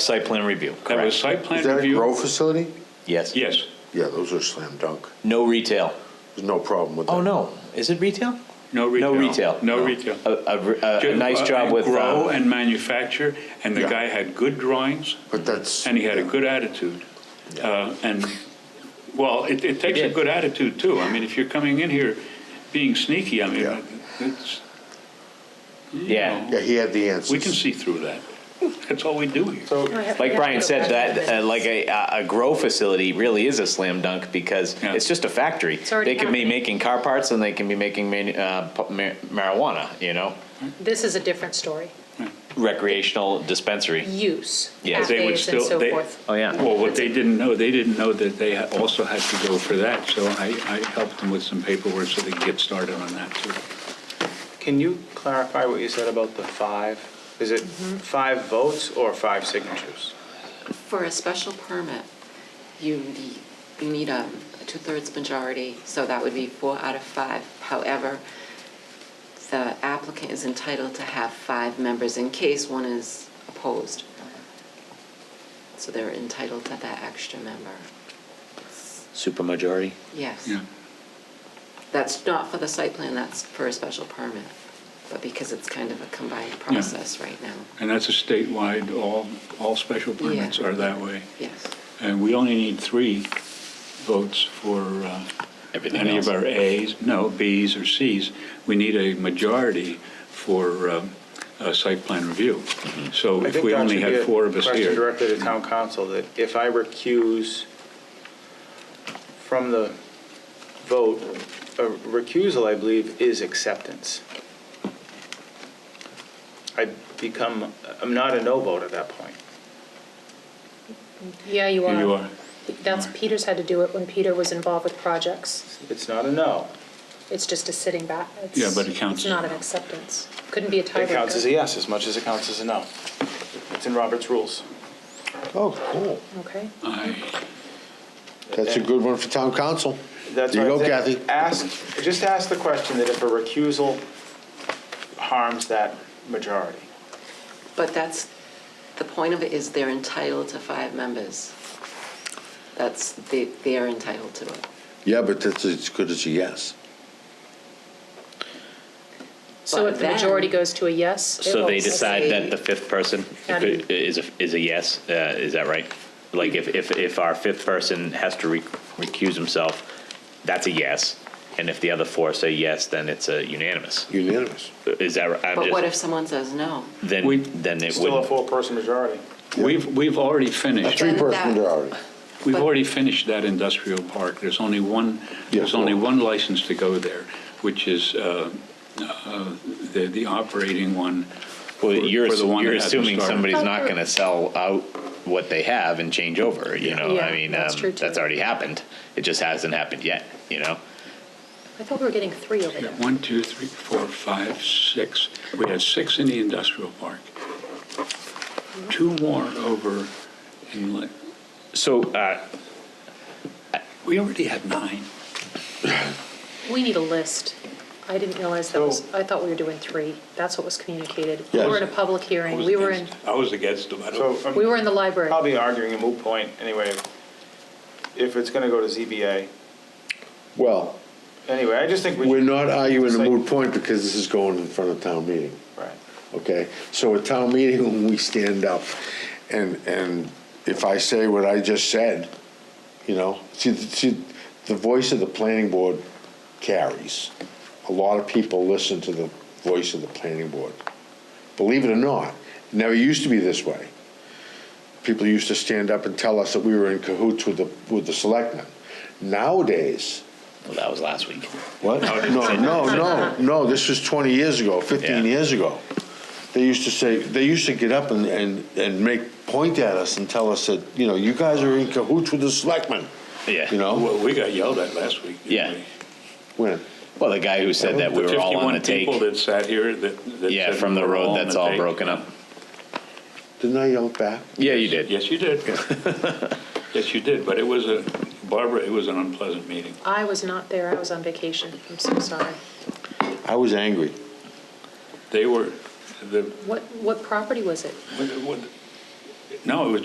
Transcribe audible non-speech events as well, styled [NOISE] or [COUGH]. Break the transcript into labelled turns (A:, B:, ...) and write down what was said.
A: Site plan review,
B: That
A: correct?
B: was site
C: Is
B: plan
C: that a grow
B: review.
C: facility?
A: Yes.
B: Yes,
C: Yeah, those are slam dunk.
A: No retail.
C: There's no problem with that.
A: Oh, no, is it retail?
B: no
A: No
B: retail.
A: retail.
B: No retail.
A: A, a- a- a nice
B: Uh,
A: job
B: and
A: with,
B: Grow
A: um,
B: and manufacture, and the
C: Yeah.
B: guy had good drawings,
C: But that's.
B: and he had a good attitude. Uh, And, well, it, it takes a
A: did.
B: good attitude too. I mean, if you're coming in here being sneaky, I
C: Yeah.
B: mean, it's, you
A: Yeah.
B: know,
C: Yeah, he had the answers.
B: we can see through that. That's all we do here.
A: like Brian said, that, uh, like a, a grow facility really is a slam dunk because
B: Yeah.
A: it's just a factory.
D: already
A: They can be
D: happening.
A: making car parts and they can be making manu- uh, pu- mar- marijuana, you know?
D: This is a different story.
A: Recreational
D: Mm.
A: dispensary.
D: Use,
A: Yeah,
B: they would
D: cafes and
B: still-
D: so
B: they-
D: forth.
A: Oh, yeah.
B: Well, what they didn't know, they didn't know that they ha- also had to go for that, so I, I helped them with some paperwork so they could get started on that too.
E: Can you clarify what you said about the five? Is it five votes or five signatures?
F: For a special permit, you need, you need a two-thirds majority, so that would be four out of five. However, the applicant is entitled to have five members in case one is opposed. So they're entitled to that extra member.
A: Supermajority.
F: Yes.
B: Yeah.
F: That's not for the site plan, that's for a special permit. But because it's kind of a combined process right now,
B: And that's a statewide, all, all special permits
F: Yeah.
B: are that way.
F: yes.
B: And we only need three votes for uh,
A: Everything
B: any of
A: else.
B: our As, no, Bs or Cs. We need a majority for um, a site plan review.
A: Mm-hmm.
B: So
E: I
B: if
E: think
B: we
E: that
B: only
E: should be
B: had
E: a
B: four of us
E: Question
B: here.
E: directly to town council, that if I recuse from the vote, a recusal, I believe, is acceptance. I become, I'm not a no vote at that point.
D: Yeah, you
B: Here
D: are.
B: you are.
D: That's, Peter's had to do it when Peter was involved with projects.
E: It's not a no.
D: It's just a sitting back. It's-
B: Yeah, but it counts
D: It's
B: as a
D: not an
B: no.
D: acceptance. Couldn't be a tiebreaker.
E: It counts
A: e-
E: as a yes as much as it counts as a no. It's in Robert's rules.
C: Oh, cool.
D: Okay.
B: Aye.
C: That's a good one for town council.
E: That's
C: There you
E: what
C: go,
E: I'm saying.
C: Kathy.
E: Ask, just ask the question that if a recusal harms that majority.
F: But that's, the point of it is they're entitled to five members. That's, they, they are entitled to it.
C: Yeah, but that's as good as a yes.
D: So
F: But
D: if the majority
F: then-
D: goes to a yes, it
A: So they
D: won't-
A: decide that the fifth person
D: Got it.
A: is, a- is a yes, uh, is that right? Like if, if, if our fifth person has to re- recuse himself, that's a yes. And if the other four say yes, then it's a unanimous.
C: Unanimous.
A: Is that right? I'm
F: But
A: just-
F: what if someone says no?
B: We-
A: Then, then it
E: Still a
A: would,
E: four-person majority.
B: We've, we've already finished,
C: Three
F: Then that-
C: person majority.
B: we've
F: but-
B: already finished that industrial park. There's only one, there's
C: Yeah.
B: only one license to go there, which is uh, uh, the, the operating one.
A: well,
B: for-
A: you're,
B: for the one
A: you're
B: that hasn't
A: assuming
B: started.
A: somebody's not gonna sell out what they have and change over, you know?
D: Yeah,
A: I mean,
D: that's
A: um,
D: true, too.
A: that's already happened. It just hasn't happened yet, you know?
D: I thought we were getting three over
B: Yeah,
D: there.
B: One, two, three, four, five, six. We had six in the industrial park. Two more over in, Lin-
A: So, uh,
B: we already had nine.
D: We need a list. I didn't realize that was,
E: So-
D: I thought we were doing three. That's what was communicated. We
C: Yes.
D: were in a public
B: I
D: hearing.
B: was
D: We were in,
B: against- I was against them. I
E: So
B: don't,
E: I'm
D: we were in the library.
E: probably arguing a moot point anyway. If it's going to go to ZBA,
C: Well,
E: anyway, I just think we.
C: we're not arguing the moot point because this is going in front of town meeting,
E: Right.
C: okay? So at town meeting, [LAUGHS] when we stand up and, and if I say what I just said, you know, see, see, the voice of the planning board carries. A lot of people listen to the voice of the planning board. Believe it or not, it never used to be this way. People used to stand up and tell us that we were in cahoots with the, with the selectmen. Nowadays,
A: well, that was last week.
C: what? No, no, no, no, this was 20 years ago, 15
A: Yeah.
C: years ago. They used to say, they used to get up and, and, and make, point at us and tell us that, you know, you guys are in cahoots with the selectmen.
A: Yeah.
C: You know,
B: Oh, well, we got yelled at last week. didn't
A: Yeah.
B: we?
C: when,
A: Well, the guy who said that we were all on a
B: The 51
A: take.
B: people that sat here that. that
A: Yeah,
B: said
A: from the
B: we're
A: road
B: on
A: that's
B: the
A: all
B: take.
A: broken up.
C: didn't I yell back?
A: Yeah, you did.
B: Yes,
A: [LAUGHS]
B: you did. Yes, you did, but it was a, Barbara, it was an unpleasant meeting.
D: I was not there. I was on vacation. I'm so sorry.
C: I was angry.
B: They were, the,
D: What, what property was it?
B: what- what- No, it was